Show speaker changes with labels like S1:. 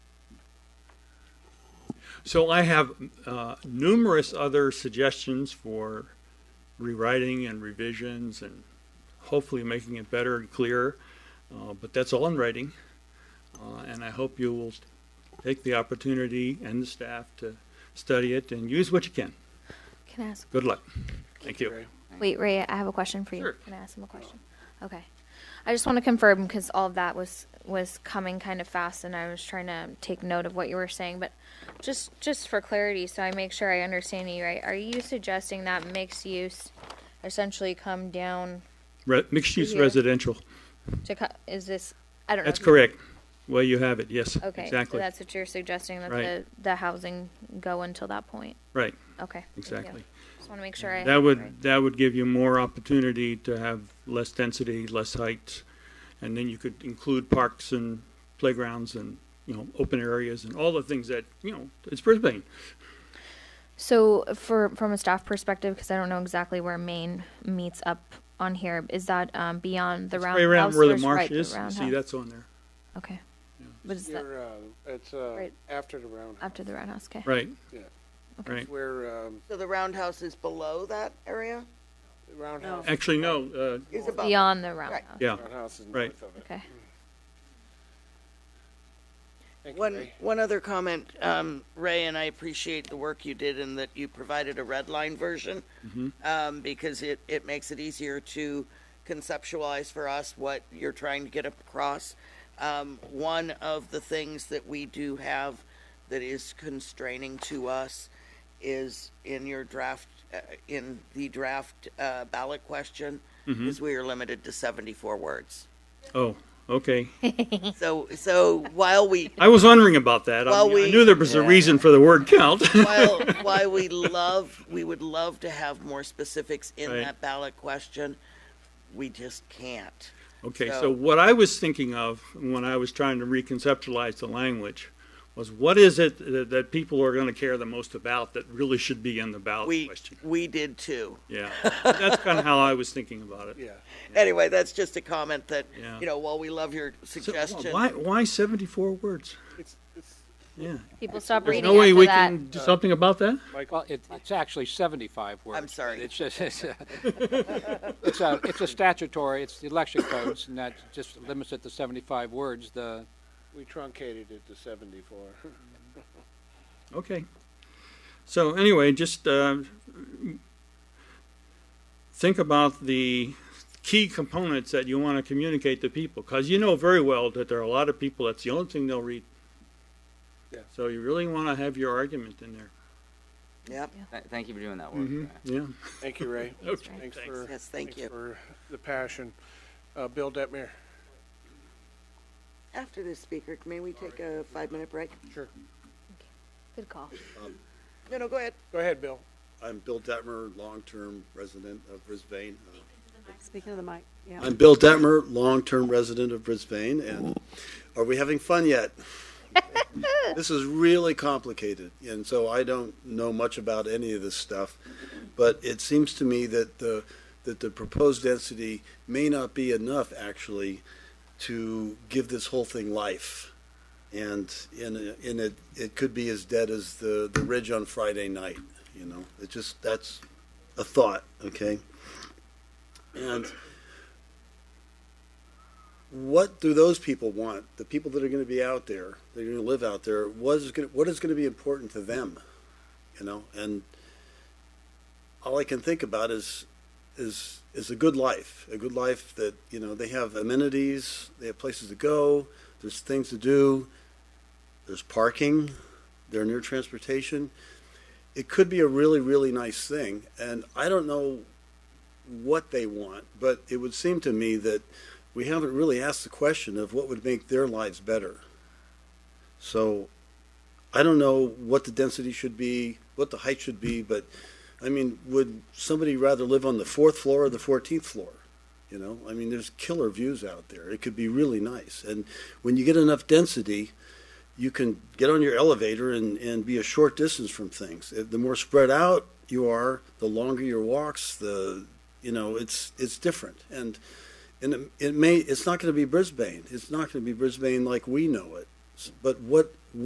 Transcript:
S1: So I have uh, numerous other suggestions for rewriting and revisions and hopefully making it better and clearer, uh, but that's all in writing. Uh, and I hope you will take the opportunity and the staff to study it and use what you can.
S2: Can I ask?
S1: Good luck. Thank you.
S2: Wait, Ray, I have a question for you.
S1: Sure.
S2: Can I ask him a question? Okay. I just want to confirm because all of that was was coming kind of fast, and I was trying to take note of what you were saying. But just just for clarity, so I make sure I understand you right, are you suggesting that mixed use essentially come down
S1: Re- mixed use
S2: Here.
S1: residential.
S2: to co- is this? I don't know.
S1: That's
S2: if you-
S1: correct. Well, you have it. Yes.
S2: Okay, so
S1: Exactly.
S2: that's what you're suggesting that
S1: Right.
S2: the the housing go until that point.
S1: right.
S2: Okay. thank you.
S1: Exactly.
S2: Just want to make sure I
S1: That
S2: have it
S1: would
S2: right.
S1: that would give you more opportunity to have less density, less height, and then you could include parks and playgrounds and you know open areas and all the things that you know it's Brisbane.
S2: So, for from a staff perspective, because I don't know exactly where Maine meets up on here, is that um, beyond the roundhouse?
S1: right around where the
S2: There's
S1: marsh
S2: right,
S1: is. you see
S2: roundhouse.
S1: that's on there.
S2: Okay. What is that
S3: Your, uh, it's, uh,
S2: Right.
S3: after the roundhouse.
S2: after the roundhouse? Okay.
S1: Right.
S3: Yeah.
S1: Right.
S3: Where, um,
S4: So the roundhouse is below that area?
S3: the roundhouse,
S4: Oh.
S1: Actually, no. Uh,
S4: Is above?
S2: Beyond the roundhouse.
S1: yeah.
S3: roundhouse is
S1: Right.
S3: north of it.
S2: Okay.
S3: Thank you,
S4: One,
S3: Ray.
S4: one other comment, um, Ray, and I appreciate the work you did and that you provided a red line version. Um, because it, it makes it easier to conceptualize for us what you're trying to get across. Um, one of the things that we do have that is constraining to us is in your draft, uh, in the draft, uh, ballot question, is we are limited to seventy-four words.
S1: Oh. Okay.
S4: So, so while we,
S1: I was wondering about that. I,
S4: Well,
S1: mean, I
S4: we-
S1: knew there was a reason for the word count.
S4: while, while we love, we would love to have more specifics in
S1: Right.
S4: that ballot question, we just can't.
S1: Okay,
S4: So-
S1: so what I was thinking of when I was trying to reconceptualize the language was what is it that, that people are going to care the most about that really should be in the ballot
S4: We,
S1: question?
S4: we did too.
S1: Yeah, that's kind of how I was thinking about it.
S3: Yeah.
S4: Anyway, that's just a comment that,
S1: Yeah.
S4: you know, while we love your
S1: So,
S4: suggestion.
S1: why why 74 words?
S3: It's, it's,
S1: Yeah.
S2: People stop
S1: There's
S2: reading
S1: no way
S2: after
S1: we
S2: that.
S1: can do something about that?
S5: Well, it, it's actually 75 words. but
S4: sorry.
S5: It's just, it's, a- it's a, it's a statutory, it's the election codes, and that just limits it to 75 words. The,
S3: we truncated it to seventy-four.
S1: Okay. So anyway, just uh, think about the key components that you want to communicate to people, because you know very well that there are a lot of people that's the only thing they'll read.
S3: Yeah.
S1: So you really want to have your argument in there.
S4: Yep,
S6: Th- thank you for doing that work. Brad.
S1: Yeah.
S3: Thank you, Ray.
S1: Okay, thanks.
S3: Thanks for.
S4: Yes, thank
S3: thanks
S4: you.
S3: For the passion. Uh, Bill Detmer.
S4: after this speaker, may we take a five-minute break?
S3: Sure.
S2: Good call.
S4: No, no, go ahead.
S3: Go ahead, Bill.
S7: I'm Bill Detmer, long-term resident of Brisbane. Uh,
S8: Speaking of the mic, yeah.
S7: I'm Bill Detmer, long-term resident of Brisbane, and are we having fun yet? this is really complicated, and so I don't know much about any of this stuff, but it seems to me that the that the proposed density may not be enough actually to give this whole thing life. And in a- in it it could be as dead as the, the ridge on Friday night, you know. It just that's a thought, okay? And what do those people want? The people that are going to be out there, they're going to live out there. What is going to, what is going to be important to them? You know, and all I can think about is is is a good life, a good life that you know they have amenities, they have places to go, there's things to do, there's parking, they're near transportation. It could be a really really nice thing, and I don't know what they want, but it would seem to me that we haven't really asked the question of what would make their lives better. So I don't know what the density should be, what the height should be, but I mean, would somebody rather live on the fourth floor or the 14th floor? You know, I mean, there's killer views out there. It could be really nice. And when you get enough density, you can get on your elevator and, and be a short distance from things. Uh, The more spread out you are, the longer your walks, the you know, it's it's different. And and it, it may it's not going to be Brisbane. It's not going to be Brisbane like we know it. S- But what